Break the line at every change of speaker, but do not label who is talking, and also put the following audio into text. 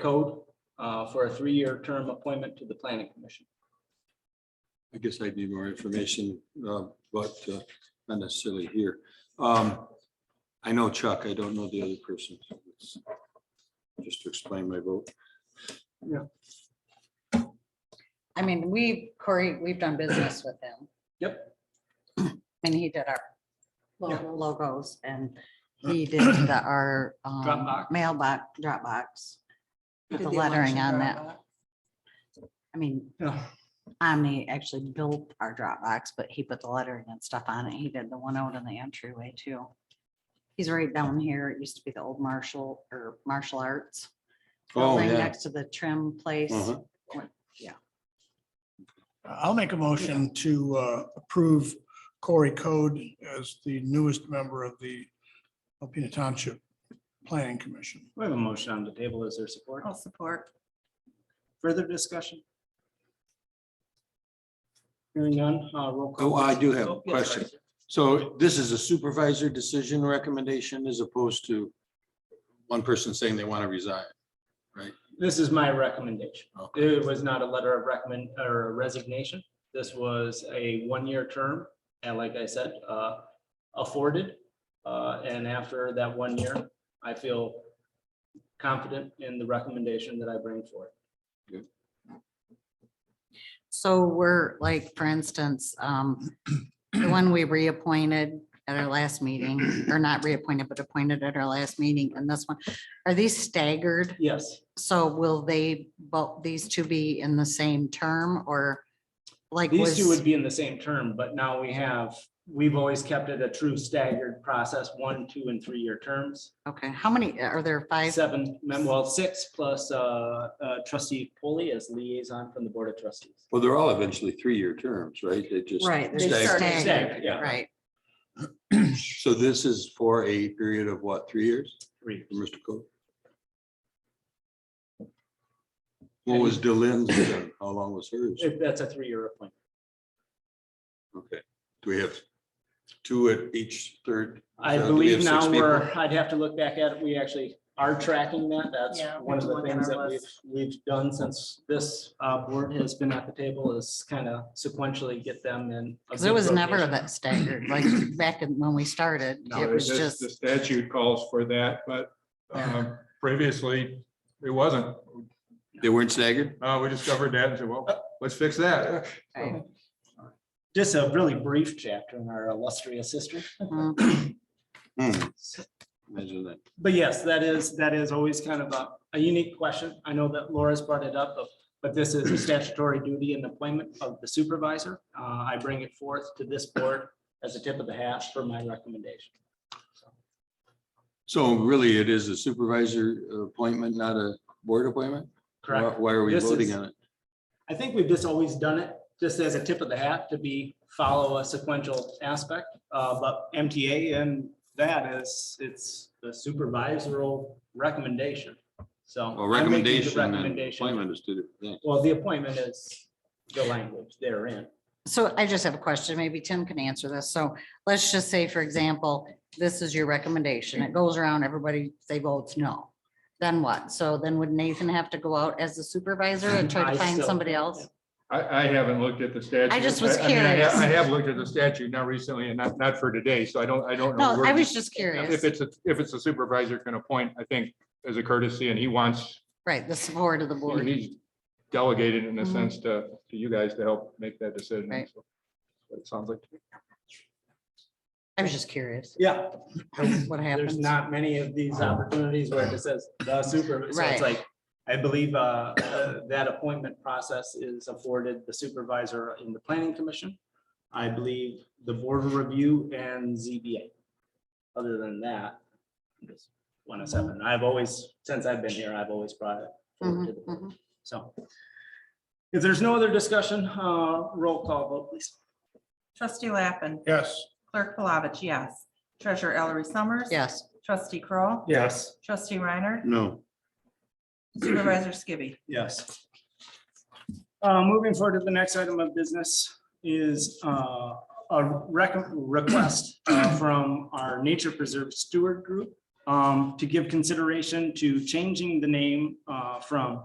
Code uh, for a three-year term appointment to the Planning Commission.
I guess I'd need more information, uh, but uh, not necessarily here. Um, I know Chuck, I don't know the other person. Just to explain my vote.
I mean, we, Corey, we've done business with him.
Yep.
And he did our
Yeah.
lo- logos and he did the, our um,
Dropbox.
mailbox, Dropbox.
Did
The
the
lettering on that.
Dropbox?
I mean,
Yeah.
Omni actually built our Dropbox, but he put the lettering and stuff on it. He did the one out in the entryway too. He's right down here. It used to be the old martial or martial arts.
Oh,
building
yeah.
Next to the trim place.
Uh-huh.
I'll make a motion to uh, approve Corey Code as the newest member of the Alpena Township Planning Commission.
We have a motion on the table. Is there support?
I'll support.
Further discussion? Hearing none, uh, roll call.
Oh, I do have a
Oh, yes,
question.
sorry, sir.
So this is a supervisor decision recommendation as opposed to one person saying they want to resign.
This is my recommendation.
Okay.
It was not a letter of recommend or resignation. This was a one-year term. And like I said, uh, afforded. Uh, and after that one year, I feel confident in the recommendation that I bring forth.
So we're like, for instance, um, the one we reappointed at our last meeting, or not reappointed, but appointed at our last meeting and this one, are these staggered?
Yes,
So will they, both, these two be in the same term or like
these two would
was,
be in the same term, but now we have, we've always kept it a true staggered process, one, two, and three-year terms.
okay, how many, are there five?
Seven, mem- well, six plus uh, uh, trustee Polly as liaison from the Board of Trustees.
Well, they're all eventually three-year terms, right? They just.
Right, they're
stagger.
staggered.
staggered,
Staggered, yeah.
right.
So this is for a period of what, three years,
Three.
Mr. Cole? What was Delenn's? term? How long was hers?
If That's a three-year appointment.
Okay, do we have two at each third?
I
So do we have
believe now
six
we're,
people?
I'd have to look back at it. We actually are tracking that. That's
Yeah, we
one of
have to
the
look at
things
our
that we've,
list.
we've done since this uh, board has been at the table is kind of sequentially get them in. a
Cause it
good
was never
rotation.
that staggered, like back in- when we started,
No,
it was
this-
just,
The statute calls for that, but
Yeah.
um, previously, it wasn't.
They weren't staggered?
Uh, We discovered that and said, well, let's fix that.
Right.
Um, Just a really brief chapter in our illustrious history.
mm,
Hmm. Imagine that.
But yes, that is, that is always kind of a, a unique question. I know that Laura's brought it up, but, but this is a statutory duty and appointment of the supervisor. Uh, I bring it forth to this board as a tip of the hat for my recommendation.
So really, it is a supervisor appointment, not a board appointment?
Correct?
Why why are we
This
voting
is-
on it?
I think we've just always done it, just as a tip of the hat to be, follow a sequential aspect. Uh, but MTA and that is, it's the supervisory recommendation. So.
Well,
I'm making the
recommendation and
recommendation.
appointment is two different things.
Well, the appointment is the language therein.
So I just have a question, maybe Tim can answer this. So let's just say, for example, this is your recommendation. It goes around, everybody, they votes no. Then what? So then would Nathan have to go out as the supervisor and try
I
to find
still-
somebody else?
I, I haven't looked at the statute.
just was
I mean, I ha-
curious.
I have looked at the statute, not recently and not, not for today, so I don't, I don't know.
No,
where-
I was just
If
curious,
it's, a if it's a supervisor can appoint, I think, as a courtesy, and he wants,
right, the support of the board.
he's delegated in a
Mhm.
sense to, to you guys to help make that decision.
Right.
so. But It sounds like.
I was just curious
Yeah,
what
there's
happens.
not many of these opportunities where it just says the super, so
Right.
it's like, I believe uh, uh, that appointment process is afforded the supervisor in the planning commission. I believe the board of review and ZBA. Other than that, I'm just one of seven. I've always, since I've been here, I've always brought it forward to
Mhm,
the board.
mhm.
So if there's no other discussion, uh, roll call vote, please.
Trustee Lappin,
Yes.
Clerk Palovich, yes. Treasurer Ellery Summers.
Yes,
Trustee Kroll,
Yes.
Trustee Reiner,
No,
Supervisor Skibby.
Yes. Uh, moving forward to the next item of business is, uh, a rec- request uh, from our nature preserve steward group, uh, um, to give consideration to changing the name, uh, from